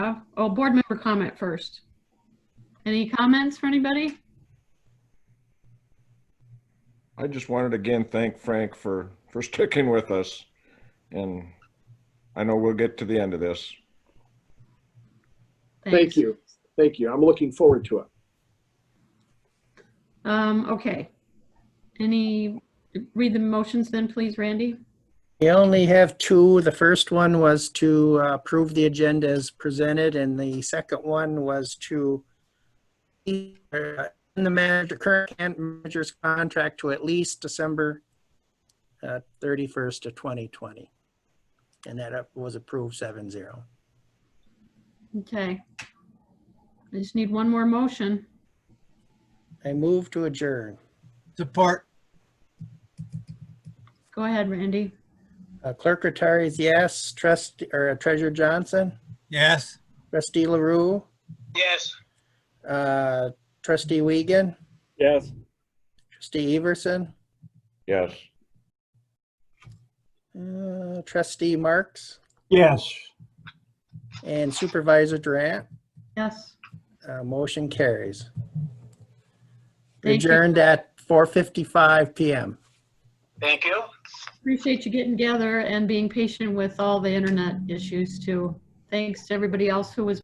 uh, oh, board member comment first. Any comments for anybody? I just wanted to again thank Frank for, for sticking with us. And I know we'll get to the end of this. Thanks. Thank you. Thank you. I'm looking forward to it. Um, okay. Any, read the motions then, please, Randy? We only have two. The first one was to uh, approve the agenda as presented, and the second one was to uh, in the manager, current can- manager's contract to at least December uh, 31st of 2020. And that uh, was approved 7-0. Okay. I just need one more motion. I move to adjourn. Support, Go ahead, Randy. Uh, Clerk Rattari is yes. Trust, or uh, Treasurer Johnson? yes. Trustee LaRue? Yes. Uh, Trustee Wiegand? Yes. Trustee Everson? Yes. Uh, Trustee Marks Yes. and Supervisor Durant, Yes. uh, motion carries. Thank you. Adjourned at 4:55 PM. Thank you. Appreciate you getting together and being patient with all the internet issues too. Thanks to everybody else who was